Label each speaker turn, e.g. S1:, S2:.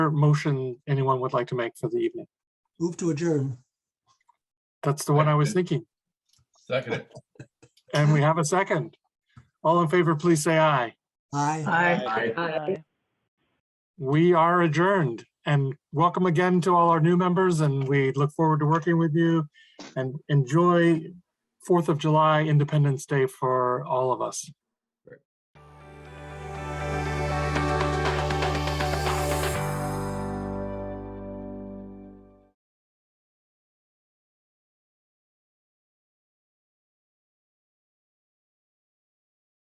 S1: motion anyone would like to make for the evening?
S2: Move to adjourn.
S1: That's the one I was thinking.
S3: Second it.
S1: And we have a second. All in favor, please say aye.
S2: Aye.
S4: Aye.
S1: We are adjourned and welcome again to all our new members and we look forward to working with you and enjoy Fourth of July Independence Day for all of us.